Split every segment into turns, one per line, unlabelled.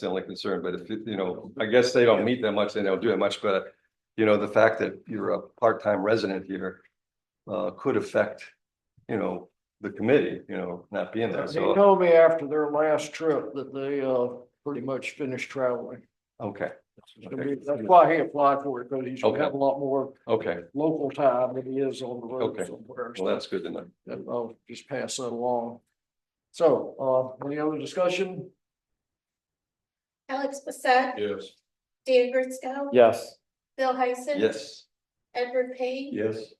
the only concern, but if, you you know, I guess they don't meet that much, then they'll do it much better. You know, the fact that you're a part-time resident here uh, could affect, you know, the committee, you know, not being there,
They
so,
told me after their last trip that they uh pretty much finished traveling.
okay,
It's gonna be- That's why he applied for it, because he's gonna
Okay.
have a lot more
okay,
local time than he is on the road
Okay.
somewhere.
well, that's good to know.
And I'll just pass that along. So, uh, any other discussion?
Alex Bassett,
Yes.
Dan Gritsko.
Yes.
Bill Heisen.
Yes.
Edward Payne.
Yes.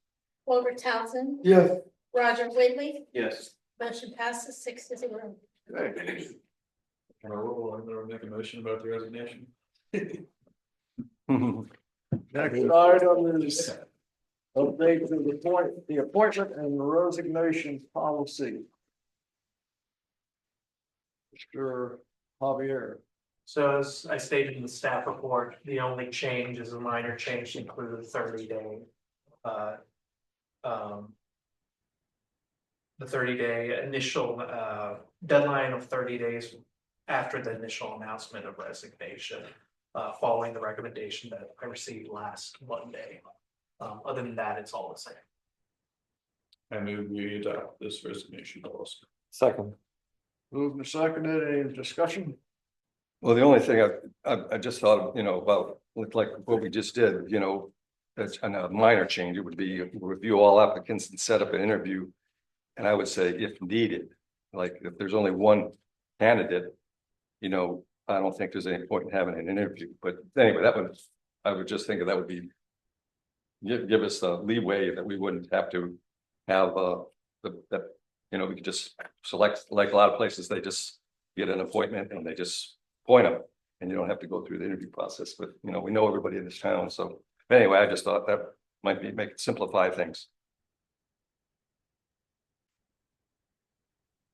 Walter Townsend.
Yes.
Roger Whitley.
Yes.
Motion passes six to zero.
Can I roll, I'm gonna make a motion about the resignation.
Next item is update to the point, the appointment and resignation policy. Mr. Javier.
So as I stated in the staff report, the only change is a minor change to include the thirty day. uh, um, The thirty day initial uh, deadline of thirty days after the initial announcement of resignation. uh, Following the recommendation that I received last Monday. Um, Other than that, it's all the same.
I move we adopt this resignation policy.
Second.
Moved and seconded, any discussion?
Well, the only thing I, I, I just thought, you know, about, with like what we just did, you know, that's a minor change. It would be review all applicants and set up an interview. And I would say if needed, like if there's only one candidate, you know, I don't think there's any point in having an interview. But anyway, that would, I would just think that that would be give, give us the leeway that we wouldn't have to have, uh, the, that, you know, we could just select, like a lot of places, they just get an appointment and they just point them. And you don't have to go through the interview process, but you know, we know everybody in this town, so anyway, I just thought that might be, make, simplify things.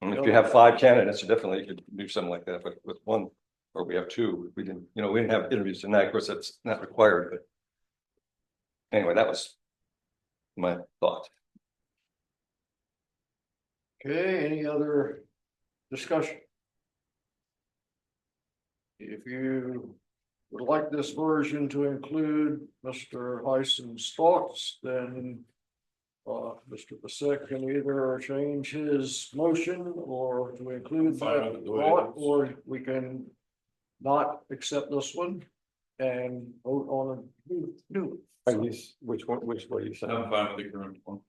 And if you have five candidates, definitely you could do something like that, but with one, or we have two, we didn't, you know, we didn't have interviews tonight, of course, that's not required, but. Anyway, that was my thought.
Okay, any other discussion? If you would like this version to include Mr. Heisen's thoughts, then. Uh, Mr. Pasek can either change his motion or to include
Fine,
that
I'll do it.
thought, or we can. Not accept this one and vote on a new, new.
Are you, s- which one, which what you said?
I'm fine with the current one.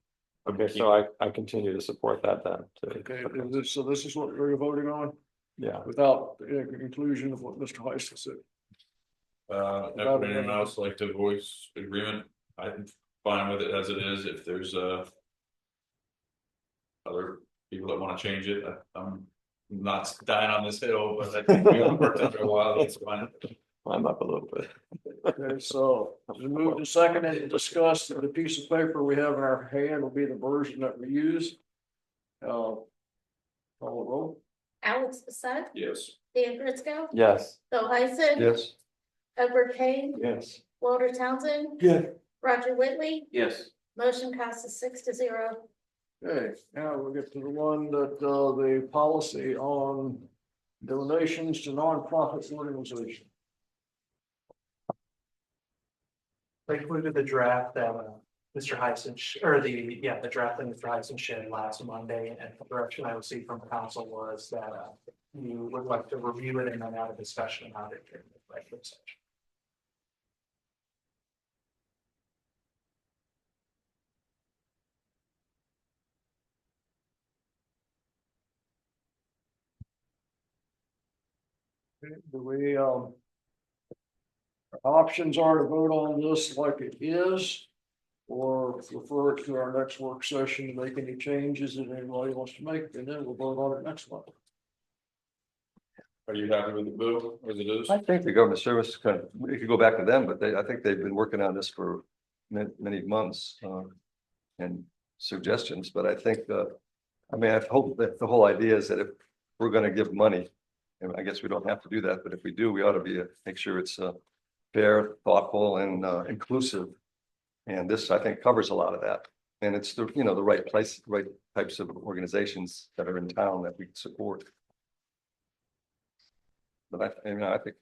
Okay, so I, I continue to support that then. too.
Okay, is this- so this is what we're voting on
Yeah,
without the inclusion of what Mr. Heisen said.
Uh, if anyone else like to voice agreement, I'm fine with it as it is, if there's uh. Other people that wanna change it, I- I'm not dying on this hill, but I think we all worked after a while, it's fine.
I'm up a little bit.
Okay, so we move to second and discuss that the piece of paper we have in our hand will be the version that we use. Uh. Call the roll.
Alex Bassett,
Yes.
Dan Gritsko.
Yes.
Bill Heisen.
Yes.
Edward Payne.
Yes.
Walter Townsend.
Yeah.
Roger Whitley.
Yes.
Motion passes six to zero.
Okay, now we'll get to the one that uh the policy on donations to nonprofit organizations.
I included the draft that uh, Mr. Heisen, sh- or the, yeah, the draft that Mr. Heisen shared last Monday, and the direction I received from council was that uh, you would like to review it and then have a discussion about it. during the executive session.
Do we um. our Options are to vote on this like it is. Or refer it to our next work session, make any changes that anybody wants to make, and then we'll vote on it next month.
Are you happy with the bill as it is?
I think the government service kind of, we could go back to them, but they, I think they've been working on this for many, many months. uh, And suggestions, but I think, uh, I mean, I hope that the whole idea is that if we're gonna give money. And I guess we don't have to do that, but if we do, we ought to be, uh, make sure it's, uh, fair, thoughtful and, uh, inclusive. And this, I think, covers a lot of that. And it's the, you know, the right place, right types of organizations that are in town that we support. But I, you know, I think